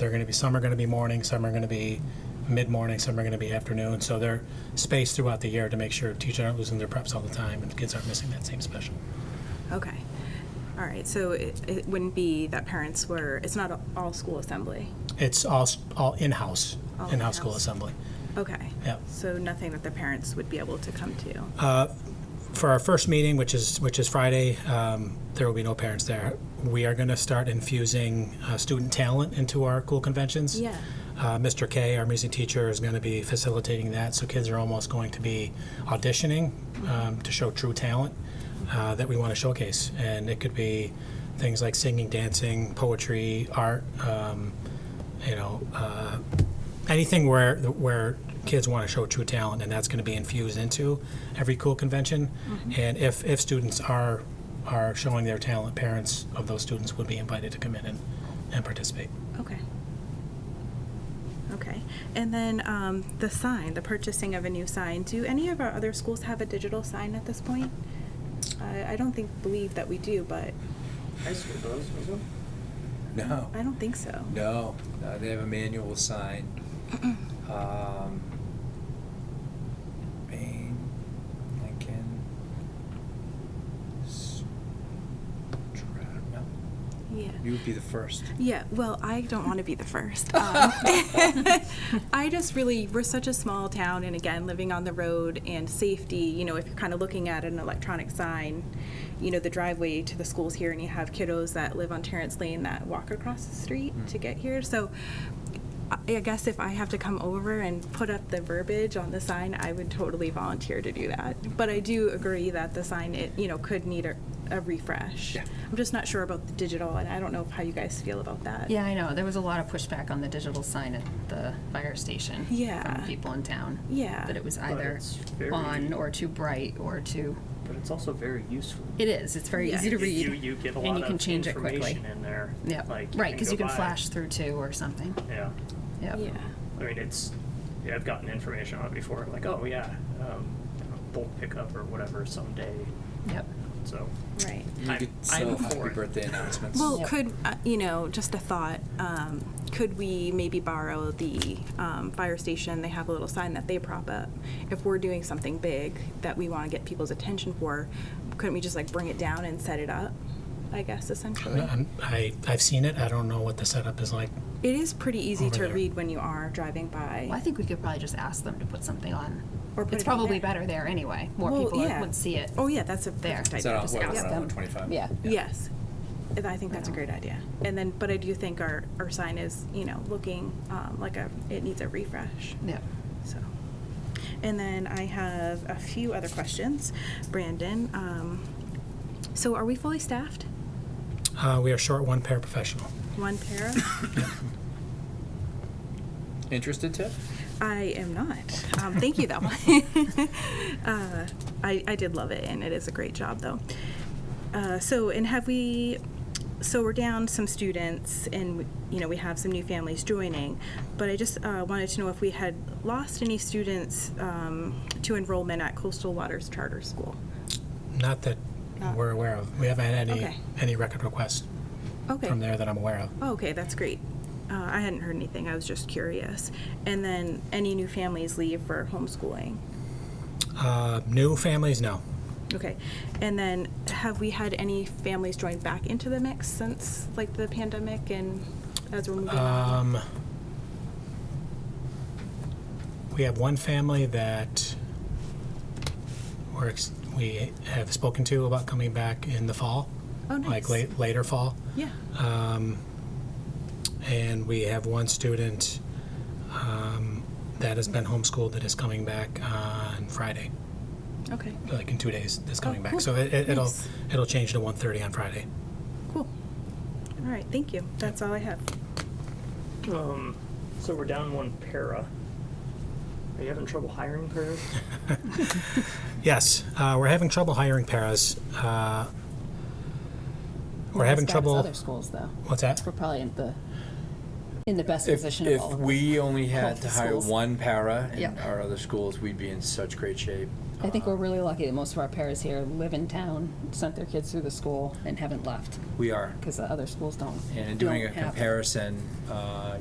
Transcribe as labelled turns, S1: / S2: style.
S1: They're going to be some are going to be morning, some are going to be mid morning, some are going to be afternoon. So they're spaced throughout the year to make sure teachers aren't losing their preps all the time and kids aren't missing that same special.
S2: Okay. All right, so it, it wouldn't be that parents were, it's not a- all school assembly?
S1: It's all s- all in house,
S2: All
S1: in house school
S2: in-house.
S1: assembly.
S2: Okay.
S1: Yep.
S2: So nothing that the parents would be able to come to?
S1: for our first meeting, which is which is Friday, um, there will be no parents there. We are going to start infusing uh, student talent into our cool conventions.
S2: Yeah.
S1: Uh, Mr. K, our music teacher, is going to be facilitating that. So kids are almost going to be auditioning um, to show true talent uh, that we want to showcase, and it could be things like singing, dancing, poetry, art. Um, you know, uh, anything where where kids want to show true talent, and that's going to be infused into every cool convention. And if if students are are showing their talent, parents of those students would be invited to come in and, and participate.
S2: Okay. Okay. And then um, the sign, the purchasing of a new sign, do any of our other schools have a digital sign at this point? I, I don't think, believe that we do, but
S3: High school does, doesn't
S4: No,
S2: I don't think so.
S4: no, no, they have a manual sign. Um, Maine, Lincoln, S- Stroud, no,
S2: Yeah.
S4: you would be the first.
S2: Yeah, well, I don't want to be the first. Um, I just really, we're such a small town, and again, living on the road and safety, you know, if you're kind of looking at an electronic sign, you know, the driveway to the school's here, and you have kiddos that live on Terrence Lane that walk across the street to get here. So I I guess if I have to come over and put up the verbiage on the sign, I would totally volunteer to do that. But I do agree that the sign, it, you know, could need a, a refresh.
S4: Yeah.
S2: I'm just not sure about the digital, and I don't know how you guys feel about that.
S5: Yeah, I know. There was a lot of pushback on the digital sign at the fire station.
S2: Yeah.
S5: From people in town.
S2: Yeah.
S5: That it was either
S3: it's very-
S5: on or too bright or too,
S3: But it's also very useful.
S5: it is, it's very
S2: Yeah.
S5: easy to
S3: You- You,
S5: read.
S3: you get a
S5: and
S3: lot
S5: you can
S3: of
S5: change it quickly.
S3: information in there.
S5: Yeah,
S3: like,
S5: right, because you
S3: go
S5: can
S3: by.
S5: flash through too or something.
S3: Yeah,
S5: Yep.
S2: Yeah.
S3: I mean it's. Yeah, I've gotten information on it before. Like, oh yeah, um, you know, bulk pickup or whatever someday.
S5: Yep.
S3: So
S2: Right.
S4: You
S3: I'm-
S4: could
S3: I'm
S4: sell
S3: for
S4: happy
S3: it.
S4: birthday announcements.
S2: Well, could, uh, you know, just a thought, um, could we maybe borrow the um, fire station? They have a little sign that they prop up. If we're doing something big that we want to get people's attention for, couldn't we just like bring it down and set it up? I guess essentially.
S1: I'm, I I've seen it. I don't know what the setup is like.
S2: It is pretty easy
S1: Over
S2: to
S1: there.
S2: read when you are driving by.
S5: Well, I think we could probably just ask them to put something on.
S2: Or put
S5: It's
S2: it on
S5: probably
S2: there.
S5: better there anyway. More
S2: Well,
S5: people
S2: yeah.
S5: would see it.
S2: Oh, yeah, that's a
S5: There.
S2: perfect
S5: Is
S4: Is that
S2: idea.
S4: on,
S2: Just
S4: what,
S2: ask
S4: on
S2: them.
S4: 125?
S5: Yeah.
S2: Yes. And I think that's a great idea. And then, but I do think our, our sign is, you know, looking um, like a, it needs a refresh.
S5: Yep.
S2: So, and then I have a few other questions. Brandon, um, so are we fully staffed?
S1: Uh, we are short one paraprofessional.
S2: One para?
S4: Interested, Tiff?
S2: I am not. Um, thank you, though. uh, I, I did love it, and it is a great job, though. Uh, so, and have we? So we're down some students, and you know we have some new families joining. But I just uh, wanted to know if we had lost any students um, to enrollment at Coastal Waters Charter School.
S1: Not that
S2: Not-
S1: we're aware of. We haven't had any
S2: Ah. Okay.
S1: any record requests
S2: Okay.
S1: from there that I'm aware of.
S2: Oh, okay, that's great. Uh, I hadn't heard anything. I was just curious. And then, any new families leave for homeschooling?
S1: Uh, new families, no.
S2: Okay, and then have we had any families join back into the mix since like the pandemic and as we're moving on?
S1: Um, we have one family that we're ex- we have spoken to about coming back in the fall,
S2: Oh,
S1: like
S2: nice.
S1: late, later fall.
S2: Yeah.
S1: Um, And we have one student um, that has been homeschooled that is coming back on Friday,
S2: Okay.
S1: like in two days. That's coming back,
S2: Oh,
S1: so
S2: cool.
S1: it, it, it'll
S2: Nice.
S1: it'll change to 1:30 on Friday.
S2: Cool. All right. Thank you. That's all I have.
S3: Um, so we're down one para. Are you having trouble hiring paras?
S1: Yes, uh, we're having trouble hiring paras. Uh, we're having trouble.
S6: Other schools, though,
S1: What's that?
S6: we're probably in the in the best
S4: If,
S6: position of
S4: if
S6: all. of them.
S4: we only had
S6: the
S4: to hire
S6: schools.
S4: one para in
S5: Yeah.
S4: our other schools, we'd be in such great shape.
S6: I think we're really lucky that most of our parents here live in town, sent their kids through the school, and haven't left
S4: We are.
S6: because the other schools don't.
S4: And doing a
S6: don't have them.
S4: comparison, uh,